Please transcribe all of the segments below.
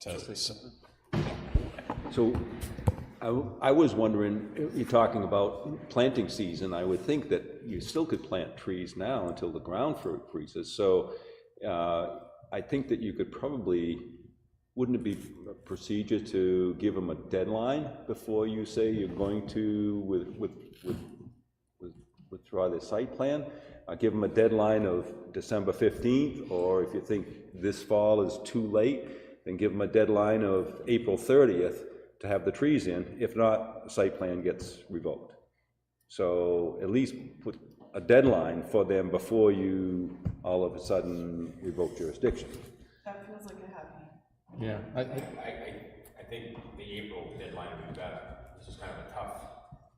to, So I, I was wondering, you're talking about planting season, I would think that you still could plant trees now until the ground fr- freezes. So uh, I think that you could probably, wouldn't it be a procedure to give them a deadline before you say you're going to with, with, with, with- withdraw their site plan? Uh, Give them a deadline of December 15th, or if you think this fall is too late, then give them a deadline of April 30th to have the trees in. If not, the site plan gets revoked. So at least put a deadline for them before you all of a sudden revoke jurisdiction. That feels like a happy. yeah, I, I, I, I, I think the April deadline would be better, this is kind of a tough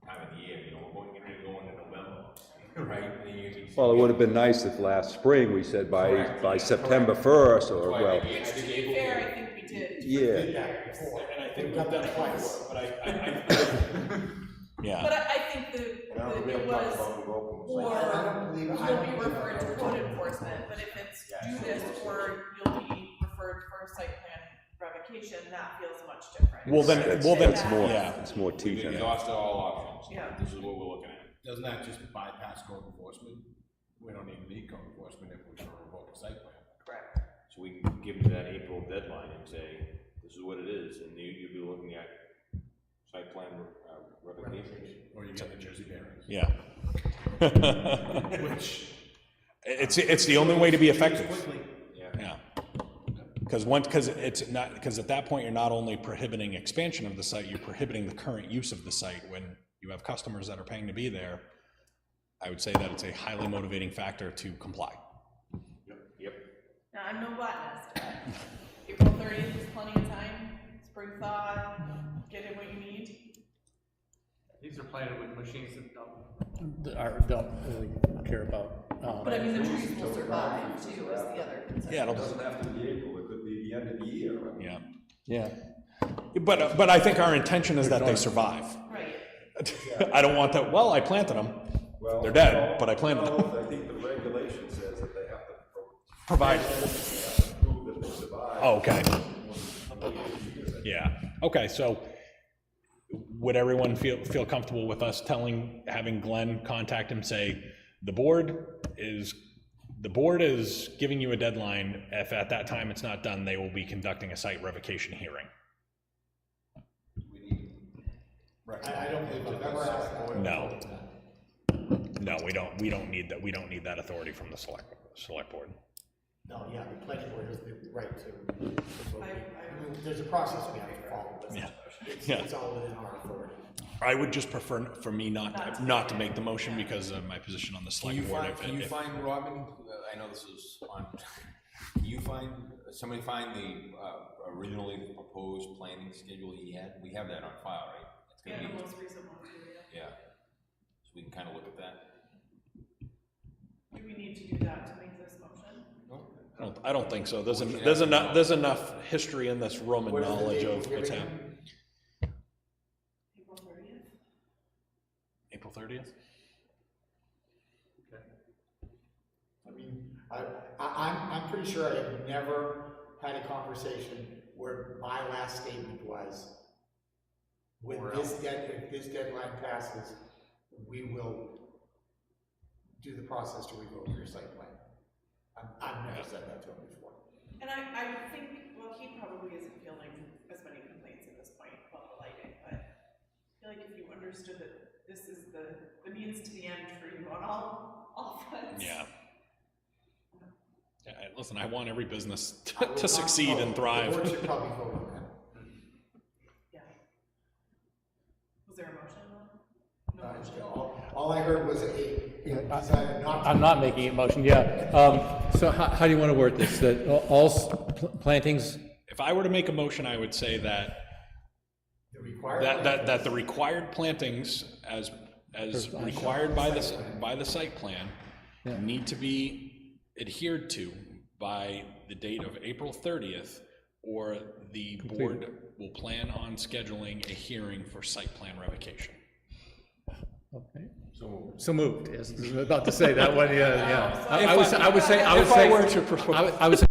time of the year, you know, we're going, you're going into November, right? And then you- Well, it would have been nice if last spring we said by, Correct, by yeah, September 1st, or, So I well, think- I think April- Fair, I think we did. yeah. And I think we've done twice, but I, I, yeah. But I, I think the, the- it was, or you'll be referred to code enforcement, but if it's do this or you'll be referred for site plan revocation, that feels much different. Well, then, That's- well, then, that's more, yeah. it's more We've teeth in it. exhausted all options, Yeah. this is what we're looking at. Doesn't that just bypass code enforcement? We don't even need code enforcement if we're gonna revoke a site plan. Correct. So we can give them that April deadline and say, this is what it is, and you, you'll be looking at site plan uh, revocation. Or you get the Jersey variance. Yeah. Which. It's, it's the only way to be effective, Quickly, yeah. Because once, because it's not, because at that point, you're not only prohibiting expansion of the site, you're prohibiting the current use of the site when you have customers that are paying to be there. I would say that it's a highly motivating factor to comply. Yep. Now, I'm no botanist, but April thirtieth is plenty of time, spring thaw, get in what you need. These are planted with machines that dump that are, don't really care about, um, But I mean, the trees will survive too, is the other concern. Yeah, it'll, have to be April, it could be the end of the year. I mean, yeah. yeah. But, but I think our intention is that they survive. Right. I don't want that, well, I planted them, well, they're dead, but I planted them. I think the regulation says that they have to pro- Provide, prove that they survived. oh, okay. Yeah, okay, so would everyone feel, feel comfortable with us telling, having Glenn contact him, say, the board is, the board is giving you a deadline, if at that time it's not done, they will be conducting a site revocation hearing? I, I don't believe that that's going. No. No, we don't, we don't need that, we don't need that authority from the select, select board. No, yeah, the planning board has the right to, I, I, there's a process we have to follow, but Yeah. it's, Yeah. it's all within our authority. I would just prefer for me not, not to make the motion because of my position on the Can you select board. find, if- can you if- find Robin, Uh, I know this is on, can you find, somebody find the, uh, originally proposed planning schedule he had? We have that on file, right? It's gonna and be- the most recent one too, yeah. Yeah, so we can kind of look at that. Do we need to do that to make this motion? I don't- I don't think so. There's, en- there's enough, there's enough history in this room and What is the knowledge date of we're what's giving happening. April thirtieth? April thirtieth? I mean, I, I, I'm, I'm pretty sure I have never had a conversation where my last statement was, when this dead, if this deadline passes, we will do the process to revoke your site plan. I've, I've never said that to him before. And I, I would think, well, he probably isn't fielding as many complaints at this point about the lighting, but I feel like if you understood that this is the, the means to the end for you on all, all fronts. Yeah. Yeah, I- Listen, I want every business to- I will to not- succeed oh, and The board thrive. should probably vote on that. Yeah. Was there a motion on? No, I just- All all I heard was a, you know, decided not to. I'm not making a motion, yeah. Um, so how, how do you want to word this? That all- all s- pl- plantings, If I were to make a motion, I would say that, The requirement. that, that, that the required plantings as, as required by the, s- by the site plan Yeah. need to be adhered to by the date of April thirtieth, or the board will plan on scheduling a hearing for site plan revocation. okay. So moved, yes, I was about to say that one, yeah, yeah. I I If would, I- say- I would say, I would if I say. were to prefer- I would- I would say